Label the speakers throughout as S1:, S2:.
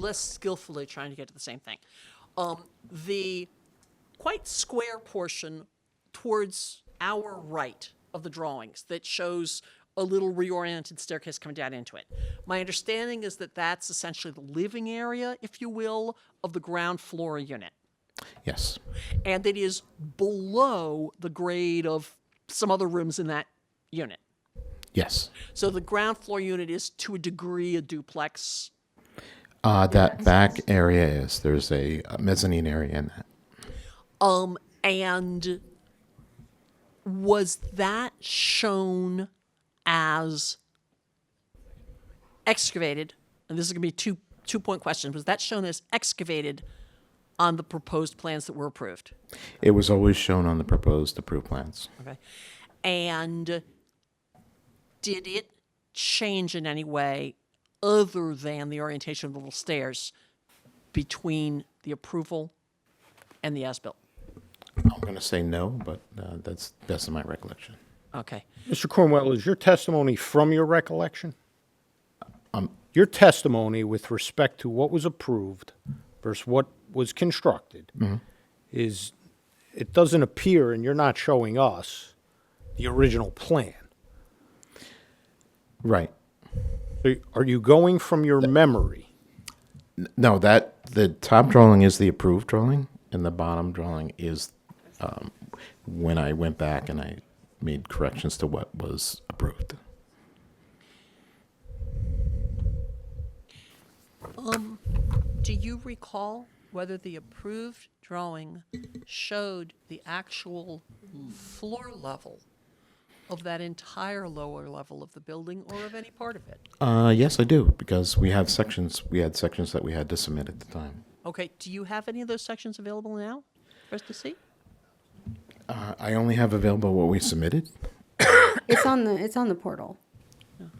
S1: less skillfully trying to get to the same thing. Um, the quite square portion towards our right of the drawings that shows a little reoriented staircase coming down into it. My understanding is that that's essentially the living area, if you will, of the ground floor unit
S2: Yes.
S1: and it is below the grade of some other rooms in that unit.
S2: Yes.
S1: So the ground floor unit is to a degree a duplex.
S2: Uh, that back area is there's a, a mezzanine area in that.
S1: Um, and was that shown as excavated? And this is going to be two two point question. Was that shown as excavated on the proposed plans that were approved?
S2: It was always shown on the proposed approved plans.
S1: Okay. And did it change in any way other than the orientation of the little stairs between the approval and the as-built?
S2: I'm going to say no, but uh, that's best of my recollection.
S1: Okay.
S3: Mr. Cornwell, is your testimony from your recollection?
S2: Um,
S3: Your testimony with respect to what was approved versus what was constructed
S2: Mm-hmm.
S3: is, it doesn't appear, and you're not showing us, the original plan.
S2: Right.
S3: So Are you going from your memory?
S2: No, that the top drawing is the approved drawing, and the bottom drawing is um, when I went back and I made corrections to what was approved.
S1: Do you recall whether the approved drawing showed the actual floor level of that entire lower level of the building or of any part of it?
S2: Uh, yes, I do because we have sections. We had sections that we had to submit at the time.
S1: Okay, do you have any of those sections available now for us to see?
S2: Uh, I only have available what we submitted.
S4: It's on the it's on the portal.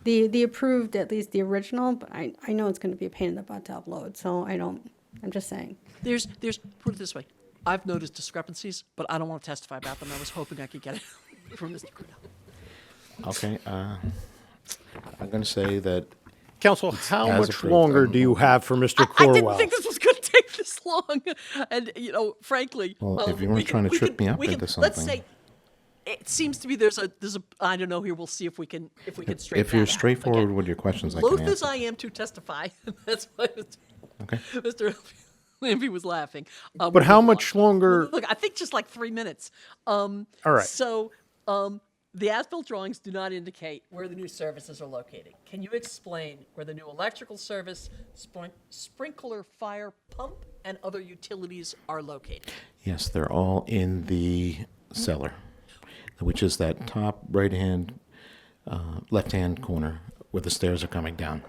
S4: The the approved at least the original, but I I know it's going to be a pain in the butt to upload, so I don't. I'm just saying.
S1: There's, there's, put it this way, I've noticed discrepancies, but I don't want to testify about them. I was hoping I could get it from Mr. Cordell.
S2: Okay. Uh, I'm going to say that
S3: Counsel, how
S2: as
S3: much
S2: approved,
S3: longer
S2: um,
S3: do you have for Mr.
S1: I didn't
S3: Cornwell?
S1: think this was going to take this long, and, you know, frankly.
S2: Well, if
S1: um,
S2: you weren't
S1: we could-
S2: trying to
S1: we
S2: trip
S1: could-
S2: me up
S1: we could-
S2: into
S1: Let's say,
S2: something.
S1: it seems to be there's a, there's a, I don't know here, we'll see if we can, if we can straighten
S2: if you're
S1: that out.
S2: straightforward
S1: Again,
S2: with your questions, I
S1: Loath
S2: can
S1: as
S2: answer.
S1: I am to testify, that's why Mr.
S2: Okay.
S1: Mr. Lampy was laughing. Um,
S3: But how
S1: moving along.
S3: much longer?
S1: Look, I think just like three minutes. Um,
S3: All right.
S1: So um, the as-built drawings do not indicate where the new services are located. Can you explain where the new electrical service, sprink- sprinkler, fire pump, and other utilities are located?
S2: Yes, they're all in the cellar, which is that top right-hand, uh, left-hand corner where the stairs are coming down.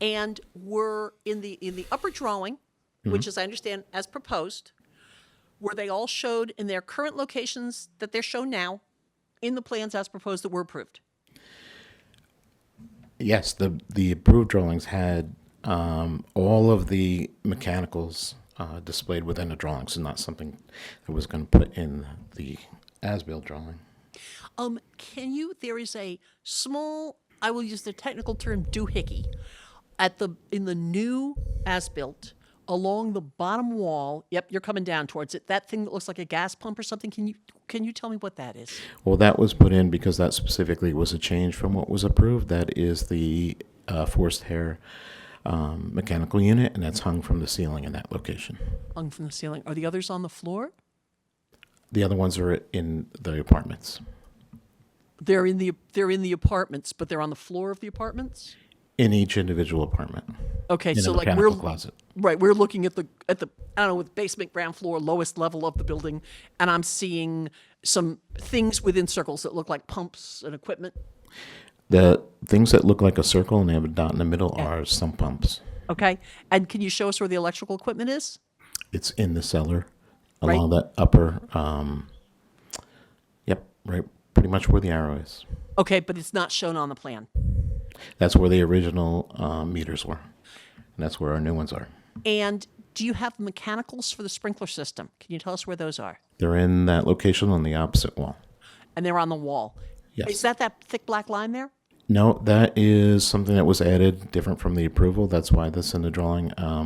S1: And were in the in the upper drawing, which, as I understand, as proposed, were they all showed in their current locations that they're shown now, in the plans as proposed that were approved?
S2: Yes, the the approved drawings had um, all of the mechanicals uh, displayed within the drawings, and not something that was going to put in the as-built drawing.
S1: Um, can you? There is a small. I will use the technical term doohickey at the in the new as built along the bottom wall. Yep, you're coming down towards it. That thing that looks like a gas pump or something. Can you can you tell me what that is?
S2: Well, that was put in because that specifically was a change from what was approved. That is the uh, forced hair um, mechanical unit, and that's hung from the ceiling in that location.
S1: Hung from the ceiling. Are the others on the floor?
S2: The other ones are in the apartments.
S1: They're in the they're in the apartments, but they're on the floor of the apartments.
S2: In each individual apartment.
S1: Okay,
S2: In a
S1: so like
S2: mechanical
S1: we're
S2: closet.
S1: right, we're looking at the at the I don't know with basement, ground floor, lowest level of the building, and I'm seeing some things within circles that look like pumps and equipment.
S2: The things that look like a circle and they have a dot in the middle are sump pumps.
S1: Okay, and can you show us where the electrical equipment is?
S2: It's in the cellar
S1: Right.
S2: along that upper, um, yep, right, pretty much where the arrow is.
S1: Okay, but it's not shown on the plan.
S2: That's where the original uh, meters were. And that's where our new ones are.
S1: And do you have mechanicals for the sprinkler system? Can you tell us where those are?
S2: They're in that location on the opposite wall.
S1: And they're on the wall.
S2: Yes.
S1: Is that that thick black line there?
S2: No, that is something that was added, different from the approval. That's why that's in the drawing. Um,